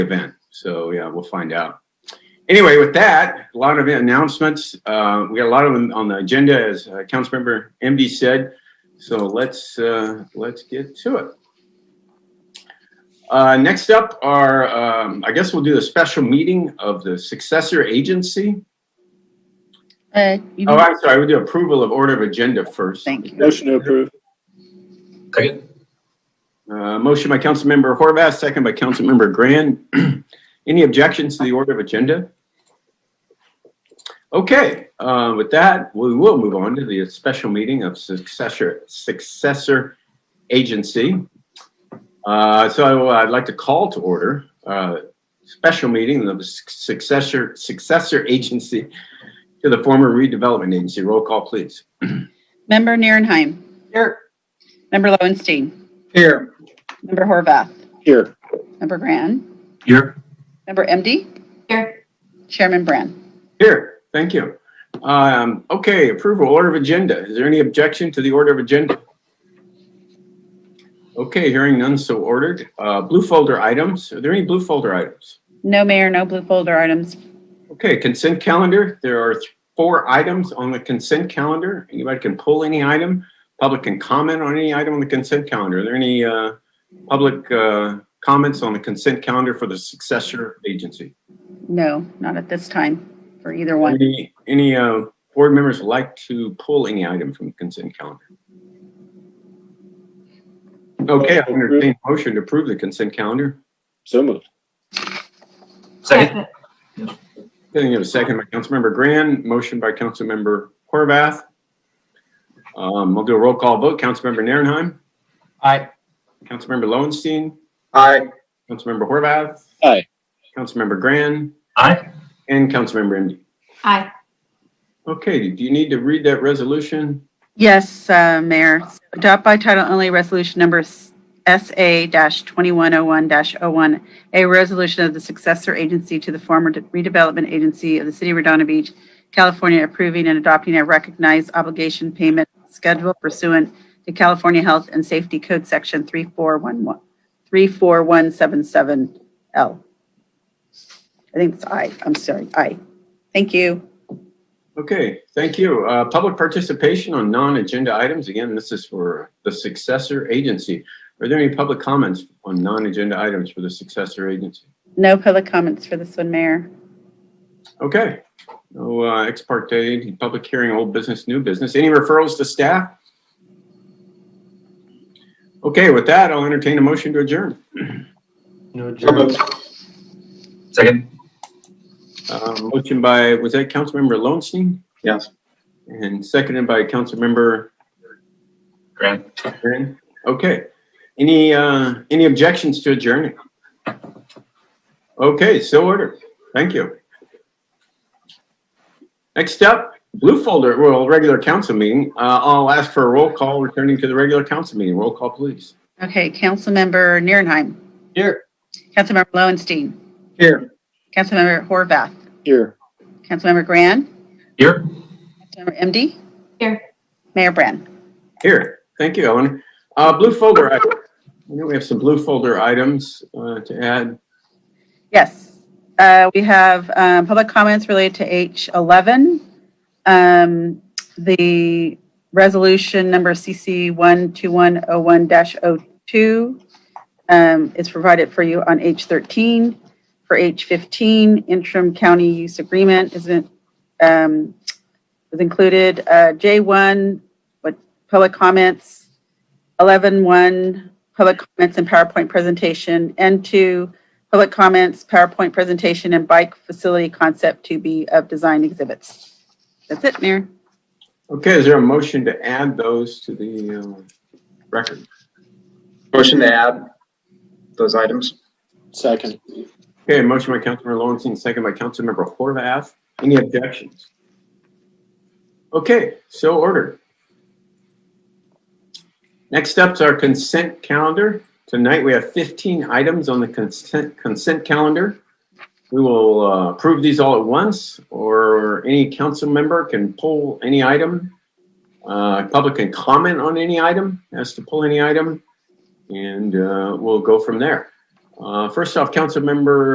event. So yeah, we'll find out. Anyway, with that, a lot of announcements. Uh, we got a lot of them on the agenda, as uh, Councilmember MD said. So let's uh, let's get to it. Uh, next up are, um, I guess we'll do a special meeting of the successor agency. Uh, you Oh, I'm sorry, we'll do approval of order of agenda first. Thank you. Motion to approve. Second. Uh, motion by Councilmember Horvath, second by Councilmember Grand. Any objections to the order of agenda? Okay, uh, with that, we will move on to the special meeting of successor, successor agency. Uh, so I'd like to call to order, uh, special meeting of the successor, successor agency to the former redevelopment agency. Roll call, please. Member Nierenheim. Here. Member Lowenstein. Here. Member Horvath. Here. Member Grand. Here. Member MD. Here. Chairman Brand. Here, thank you. Um, okay, approval, order of agenda. Is there any objection to the order of agenda? Okay, hearing none, so ordered. Uh, blue folder items, are there any blue folder items? No mayor, no blue folder items. Okay, consent calendar, there are th- four items on the consent calendar. Anybody can pull any item. Public can comment on any item on the consent calendar. Are there any, uh, public, uh, comments on the consent calendar for the successor agency? No, not at this time for either one. Any, any uh, board members would like to pull any item from consent calendar? Okay, I entertain a motion to approve the consent calendar. So moved. Second. Then you have a second by Councilmember Grand, motion by Councilmember Horvath. Um, We'll do a roll call vote. Councilmember Narenheim, Aye. Councilmember Lowenstein, Aye. Councilmember Horvath. Aye. Councilmember Grand Aye. and Councilmember MD. Aye. Okay, do you need to read that resolution? Yes, uh, Mayor. Adopt by title only resolution number SA-2101-01, a resolution of the successor agency to the former redevelopment agency of the City of Redondo Beach, California, approving and adopting a recognized obligation payment schedule pursuant to California Health and Safety Code Section 3411 34177L. I think it's I, I'm sorry, I. Thank you. Okay, thank you. Uh, Public participation on non-agenda items. Again, this is for the successor agency. Are there any public comments on non-agenda items for the successor agency? No public comments for this one, Mayor. Okay. No uh, ex parte, public hearing, old business, new business. Any referrals to staff? Okay, with that, I'll entertain a motion to adjourn. Second. Uh, Motion by, was that Councilmember Lowenstein? Yes. And seconded by Councilmember Grant. Aaron? Okay. Any, uh, any objections to adjourning? Okay, so ordered. Thank you. Next up, blue folder, well, regular council meeting. Uh, I'll ask for a roll call returning to the regular council meeting. Roll call, please. Okay, Councilmember Nierenheim. Here. Councilmember Lowenstein. Here. Councilmember Horvath. Here. Councilmember Grand. Here. Councilmember MD. Here. Mayor Brand. Here, thank you, Ellen. Uh, blue folder, I I know we have some blue folder items, uh, to add. Yes. Uh, We have um, public comments related to H11. Um, The resolution number CC 12101-02 um, is provided for you on H13. For H15, interim county use agreement isn't, um, is included. Uh, J1, what, public comments. 11.1, public comments and PowerPoint presentation. N2, Public comments, PowerPoint presentation, and bike facility concept to be of design exhibits. That's it, Mayor. Okay, is there a motion to add those to the, uh, record? Motion to add those items. Second. Okay, motion by Councilmember Lowenstein, second by Councilmember Horvath. Any objections? Okay, so ordered. Next up's our consent calendar. Tonight, we have 15 items on the consent, consent calendar. We will uh, approve these all at once, or any council member can pull any item. Uh, Public can comment on any item, has to pull any item, and uh, we'll go from there. Uh, First off, Councilmember